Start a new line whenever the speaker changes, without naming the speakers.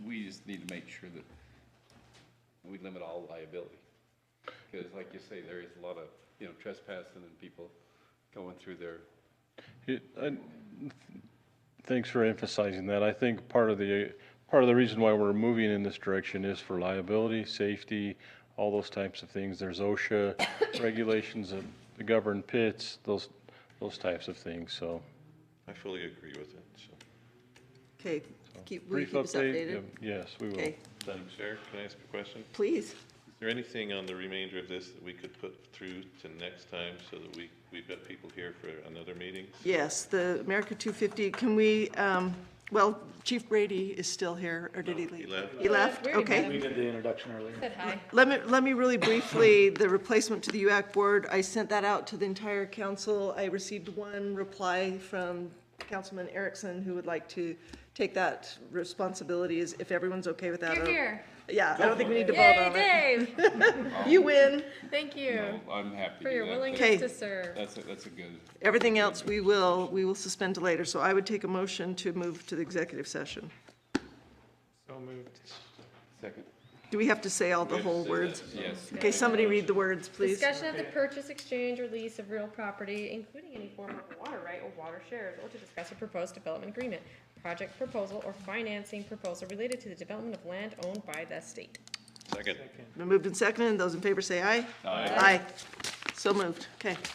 need to make sure that we limit all liability. Because like you say, there is a lot of, you know, trespassing and people going through their,
It- I- Thanks for emphasizing that. I think part of the, part of the reason why we're moving in this direction is for liability, safety, all those types of things. There's OSHA regulations that govern pits, those, those types of things, so.
I fully agree with it, so.
Okay, keep, will you
Oh, brief
keep us
update,
updated?
yeah, Yes, we will.
Okay,
Madam Chair, can I ask a question?
please.
Is there anything on the remainder of this that we could put through to next time so that we, we've got people here for another meeting?
Yes, the America 250, can we, um, well, Chief Brady is still here, or did he
He
leave?
left.
He left,
Brady
okay.
We did the introduction earlier.
Said hi.
Let me, let me really briefly, the replacement to the UAC board, I sent that out to the entire council. I received one reply from Councilman Erickson, who would like to take that responsibility, is if everyone's okay with that.
You're here.
Yeah, I don't think we need to vote
Yay,
on it.
Dave!
You win.
Thank
No,
you
I'm happy to
for
do
your
that.
Okay.
willingness to serve.
That's, a- that's a good,
Everything else, we will, we will suspend to later. So I would take a motion to move to the executive session.
second,
Do we have to say all the whole words?
yes.
Okay, somebody read the words, please.
Discussion of the purchase, exchange, or lease of real property, including any form of water right or water shares, or to discuss a proposed development agreement, project proposal, or financing proposal related to the development of land owned by the state.
Second.
Been moved and seconded. Those in favor say aye. Aye. So moved. Okay.